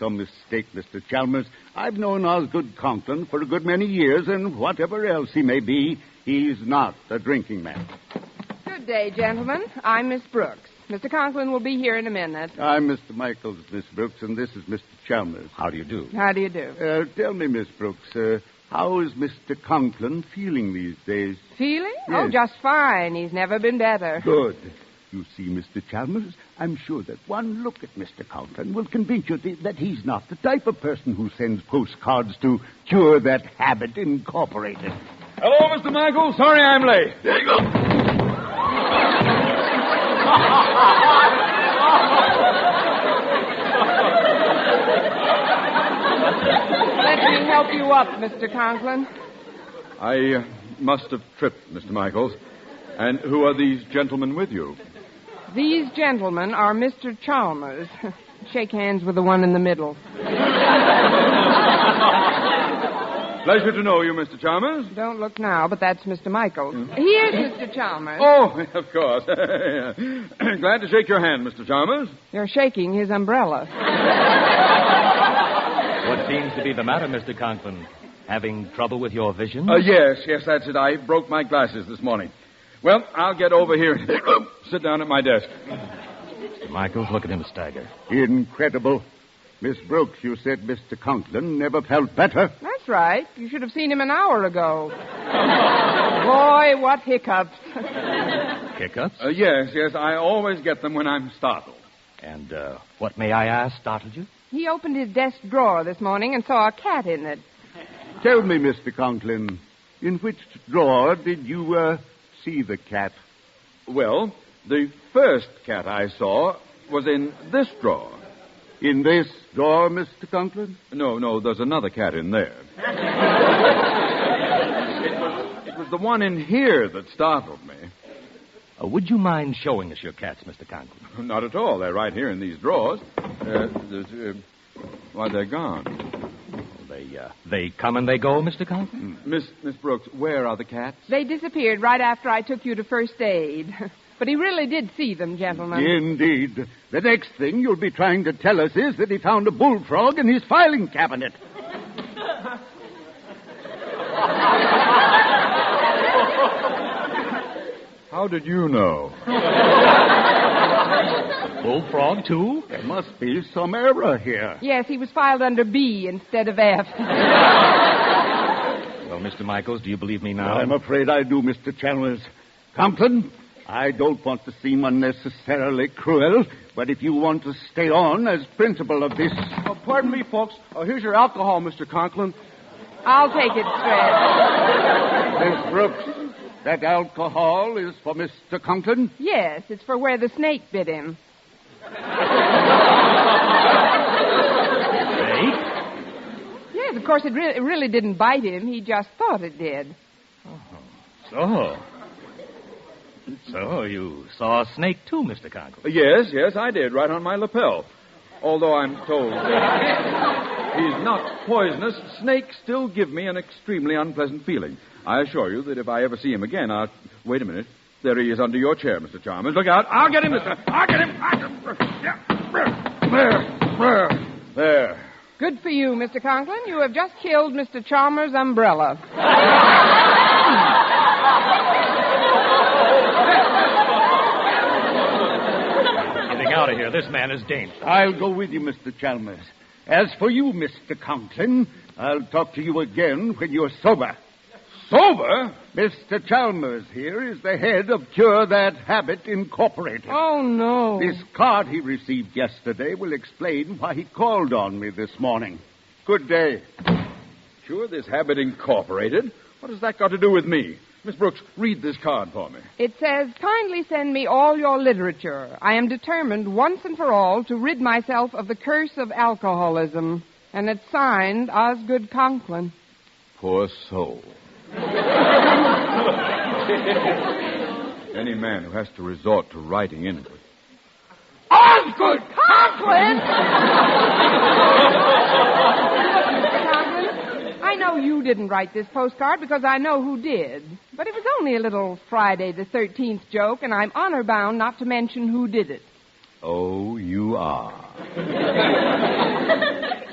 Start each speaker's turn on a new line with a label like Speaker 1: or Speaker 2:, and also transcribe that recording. Speaker 1: Some mistake, Mr. Chalmers. I've known Osgood Conklin for a good many years, and whatever else he may be, he's not a drinking man.
Speaker 2: Good day, gentlemen. I'm Miss Brooks. Mr. Conklin will be here in a minute.
Speaker 1: I'm Mr. Michaels, Miss Brooks, and this is Mr. Chalmers.
Speaker 3: How do you do?
Speaker 2: How do you do?
Speaker 1: Uh, tell me, Miss Brooks, uh, how is Mr. Conklin feeling these days?
Speaker 2: Feeling?
Speaker 1: Yes.
Speaker 2: Oh, just fine. He's never been better.
Speaker 1: Good. You see, Mr. Chalmers, I'm sure that one look at Mr. Conklin will convince you th- that he's not the type of person who sends postcards to cure that habit incorporated.
Speaker 4: Hello, Mr. Michael. Sorry I'm late.
Speaker 2: Let me help you up, Mr. Conklin.
Speaker 4: I uh, must have tripped, Mr. Michaels. And who are these gentlemen with you?
Speaker 2: These gentlemen are Mr. Chalmers. Shake hands with the one in the middle.
Speaker 4: Pleasure to know you, Mr. Chalmers.
Speaker 2: Don't look now, but that's Mr. Michaels. Here's Mr. Chalmers.
Speaker 4: Oh, of course. Glad to shake your hand, Mr. Chalmers.
Speaker 2: You're shaking his umbrella.
Speaker 3: What seems to be the matter, Mr. Conklin? Having trouble with your vision?
Speaker 4: Uh, yes, yes, that's it. I broke my glasses this morning. Well, I'll get over here and sit down at my desk.
Speaker 3: Mr. Michaels, look at him stagger.
Speaker 1: Incredible. Miss Brooks, you said Mr. Conklin never felt better.
Speaker 2: That's right. You should have seen him an hour ago. Boy, what hiccups.
Speaker 3: Hiccups?
Speaker 4: Uh, yes, yes, I always get them when I'm startled.
Speaker 3: And uh, what, may I ask, startled you?
Speaker 2: He opened his desk drawer this morning and saw a cat in it.
Speaker 1: Tell me, Mr. Conklin, in which drawer did you uh, see the cat?
Speaker 4: Well, the first cat I saw was in this drawer.
Speaker 1: In this drawer, Mr. Conklin?
Speaker 4: No, no, there's another cat in there. it, was, it was the one in here that startled me.
Speaker 3: Uh, would you mind showing us your cats, Mr. Conklin?
Speaker 4: Not at all. They're right here in these drawers. Uh, there's, uh, why, they're gone.
Speaker 3: They, uh, they come and they go, Mr. Conklin?
Speaker 4: Miss, Miss Brooks, where are the cats?
Speaker 2: They disappeared right after I took you to first aid. But he really did see them, gentlemen.
Speaker 1: Indeed. The next thing you'll be trying to tell us is that he found a bullfrog in his filing cabinet.
Speaker 4: How did you know?
Speaker 3: Bullfrog, too?
Speaker 1: There must be some error here.
Speaker 2: Yes, he was filed under B instead of F.
Speaker 3: Well, Mr. Michaels, do you believe me now?
Speaker 1: Mm. I'm afraid I do, Mr. Chalmers. Conklin, I don't want to seem unnecessarily cruel, but if you want to stay on as principal of this.
Speaker 5: Oh, pardon me, folks. Oh, here's your alcohol, Mr. Conklin.
Speaker 2: I'll take it straight.
Speaker 1: Miss Brooks, that alcohol is for Mr. Conklin?
Speaker 2: Yes, it's for where the snake bit him.
Speaker 3: Snake?
Speaker 2: Yes, of course, it, re- it really didn't bite him. He just thought it did.
Speaker 3: So. So you saw a snake, too, Mr. Conklin?
Speaker 4: Yes, yes, I did, right on my lapel. Although I'm told that he's not poisonous, snakes still give me an extremely unpleasant feeling. I assure you that if I ever see him again, I'll. Wait a minute. There he is under your chair, Mr. Chalmers. Look out. I'll get him, Mr. I'll get him. I'll get him. Yeah. There. There. There.
Speaker 2: Good for you, Mr. Conklin. You have just killed Mr. Chalmers' umbrella.
Speaker 3: Getting out of here. This man is dangerous.
Speaker 1: I'll go with you, Mr. Chalmers. As for you, Mr. Conklin, I'll talk to you again when you're sober.
Speaker 4: Sober?
Speaker 1: Mr. Chalmers here is the head of Cure That Habit Incorporated.
Speaker 2: Oh, no.
Speaker 1: This card he received yesterday will explain why he called on me this morning. Good day.
Speaker 4: Sure, this habit incorporated. What has that got to do with me? Miss Brooks, read this card for me.
Speaker 2: It says, kindly send me all your literature. I am determined once and for all to rid myself of the curse of alcoholism. And it's signed Osgood Conklin.
Speaker 4: Poor soul. Any man who has to resort to writing in it.
Speaker 2: Osgood Conklin! Conklin, I know you didn't write this postcard because I know who did. But it was only a little Friday the 13th joke, and I'm honor bound not to mention who did it.
Speaker 1: Oh, you are.